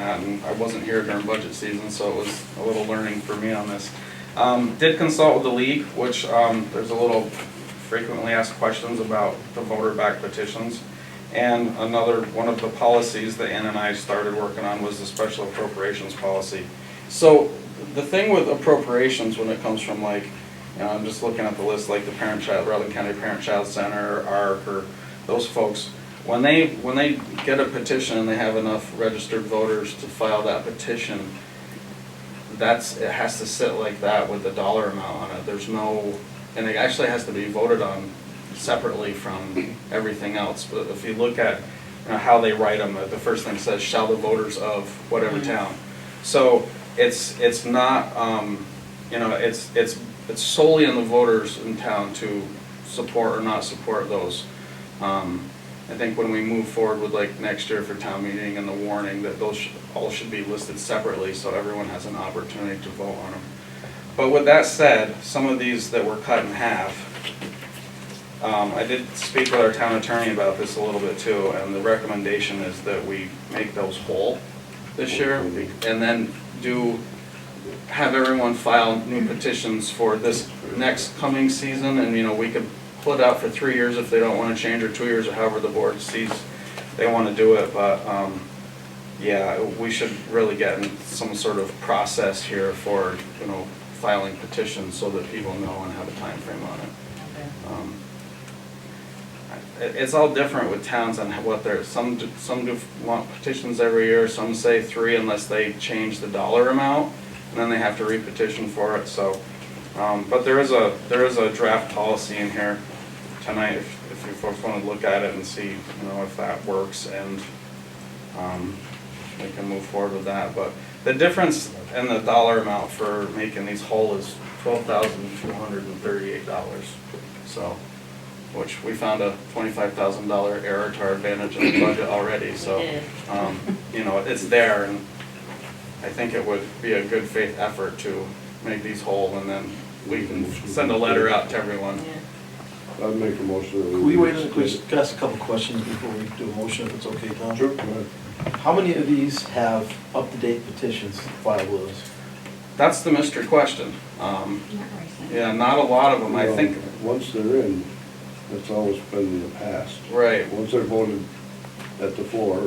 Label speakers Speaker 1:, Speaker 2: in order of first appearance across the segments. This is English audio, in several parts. Speaker 1: and I wasn't here during budget season, so it was a little learning for me on this. Um, did consult with the league, which, um, there's a little frequently asked questions about the voter back petitions. And another, one of the policies that Ann and I started working on was the special appropriations policy. So the thing with appropriations when it comes from like, you know, I'm just looking at the list, like the parent child, Rutland County Parent Child Center, ARC, or those folks. When they, when they get a petition and they have enough registered voters to file that petition, that's, it has to sit like that with the dollar amount on it, there's no, and it actually has to be voted on separately from everything else, but if you look at, you know, how they write them, the first thing says, shall the voters of whatever town. So, it's, it's not, um, you know, it's, it's, it's solely on the voters in town to support or not support those. Um, I think when we move forward with like next year for town meeting and the warning, that those should- all should be listed separately, so everyone has an opportunity to vote on them. But with that said, some of these that were cut in half, um, I did speak with our town attorney about this a little bit too, and the recommendation is that we make those whole this year, and then do, have everyone file new petitions for this next coming season, and, you know, we could pull it out for three years if they don't wanna change, or two years, or however the board sees they wanna do it, but, um, yeah, we should really get in some sort of process here for, you know, filing petitions so that people know and have a time frame on it. Um, it- It's all different with towns on what they're, some, do- some do want petitions every year, some say three unless they change the dollar amount, and then they have to re-petition for it, so. Um, but there is a, there is a draft policy in here tonight, if, if you folks wanna look at it and see, you know, if that works, and, um, we can move forward with that, but the difference in the dollar amount for making these whole is twelve thousand two hundred and thirty-eight dollars, so which we found a twenty-five thousand dollar error to our advantage in the budget already, so.
Speaker 2: We did.
Speaker 1: Um, you know, it's there, and I think it would be a good faith effort to make these whole, and then we can send a letter out to everyone.
Speaker 3: I'd make a motion. that
Speaker 4: Can we wait, can we ask a couple questions before we do a motion, if it's okay, Tom?
Speaker 3: Sure, go ahead.
Speaker 4: How many of these have up-to-date petitions filed with us?
Speaker 1: That's the mystery question. Um,
Speaker 2: Not recent.
Speaker 1: yeah, not a lot of them, I
Speaker 3: Well,
Speaker 1: think,
Speaker 3: Once they're in, that's always been in the past.
Speaker 1: right,
Speaker 3: Once they're voted at the floor,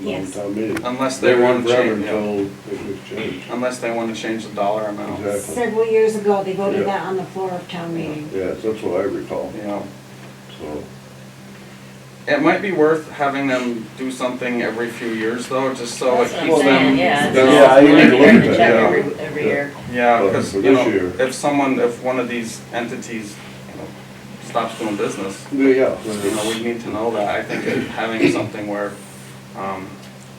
Speaker 3: on
Speaker 2: Yes.
Speaker 3: town meeting.
Speaker 1: Unless they want to change, yeah.
Speaker 3: Until it was changed.
Speaker 1: unless they want to change the dollar amount.
Speaker 3: Exactly.
Speaker 5: Several years ago, they voted
Speaker 3: Yeah.
Speaker 5: that on the floor of town meeting.
Speaker 3: Yes, that's what I recall,
Speaker 1: You know,
Speaker 3: so.
Speaker 1: it might be worth having them do something every few years though, just so it
Speaker 2: That's what I'm
Speaker 1: keeps
Speaker 2: saying,
Speaker 1: them.
Speaker 2: yeah.
Speaker 3: Yeah,
Speaker 2: It's
Speaker 3: I
Speaker 2: like
Speaker 3: didn't
Speaker 2: we have
Speaker 3: look
Speaker 2: to
Speaker 3: at
Speaker 2: check
Speaker 3: that.
Speaker 2: every- Every
Speaker 3: Yeah.
Speaker 2: year.
Speaker 1: Yeah,
Speaker 3: But
Speaker 1: because,
Speaker 3: for
Speaker 1: you
Speaker 3: this
Speaker 1: know,
Speaker 3: year-
Speaker 1: if someone, if one of these entities you know, stops doing business,
Speaker 3: Yeah,
Speaker 1: you know, we need to know that. I think that having something where, um,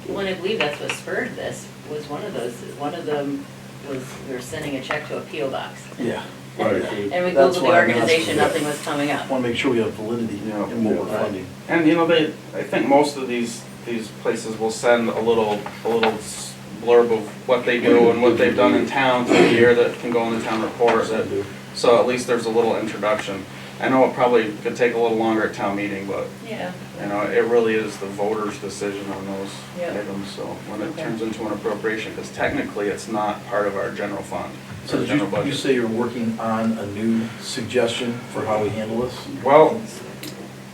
Speaker 2: Well, and I believe that's what spurred this, was one of those, one of them was, we were sending a check to a PO box.
Speaker 4: Yeah.
Speaker 3: right.
Speaker 2: And we
Speaker 4: That's
Speaker 2: Googled the
Speaker 4: why I'm asking.
Speaker 2: organization, nothing was coming up.
Speaker 4: Want to make sure we have validity
Speaker 1: Yeah.
Speaker 4: in what we're
Speaker 3: Yeah.
Speaker 4: funding.
Speaker 1: and you know, they, I think most of these, these places will send a little, a little s- blurb of what they do and what they've done in town through the year that can go in the town report that So at least there's a little introduction. I know it probably could take a little longer at town meeting, but,
Speaker 2: Yeah.
Speaker 1: you know, it really is the voter's decision on those
Speaker 2: Yeah.
Speaker 1: items, so when it
Speaker 2: Okay.
Speaker 1: turns into an appropriation, because technically it's not part of our general fund,
Speaker 4: So
Speaker 1: or
Speaker 4: did
Speaker 1: general
Speaker 4: you, you
Speaker 1: budget.
Speaker 4: say you're working on a new suggestion for how we handle this?
Speaker 1: Well,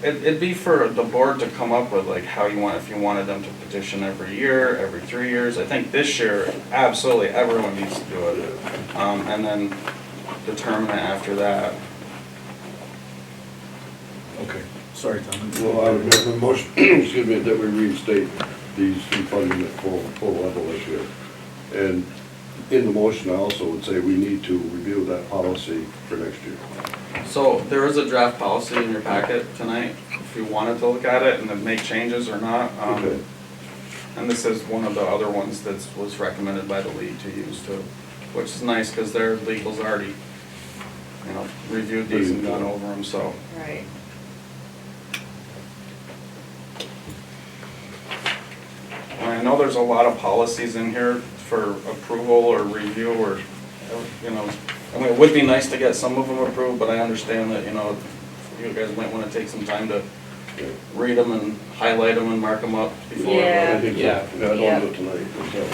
Speaker 1: it, it'd be for the board to come up with like how you want, if you wanted them to petition every year, every three years. I think this year, absolutely, everyone needs to do it. Um, and then determine it after that.
Speaker 4: Okay, sorry, Tom.
Speaker 3: Well, I would make a motion, excuse me, that we restate these two funding at full, full level this year. And in the motion, I also would say we need to review that policy for next year.
Speaker 1: So there is a draft policy in your packet tonight, if you wanted to look at it and then make changes or not. um,
Speaker 3: Okay.
Speaker 1: And this is one of the other ones that was recommended by the league to use too, which is nice because their legal's already, you know, reviewed these and gone over them, so.
Speaker 2: Right.
Speaker 1: And I know there's a lot of policies in here for approval or review or, you know, I mean, it would be nice to get some of them approved, but I understand that, you know, you guys might want to take some time to read them and highlight them and mark them up before. uh,
Speaker 2: Yeah.
Speaker 3: I think so.
Speaker 1: Yeah.
Speaker 3: Yeah, I
Speaker 2: Yeah.
Speaker 3: don't do it tonight.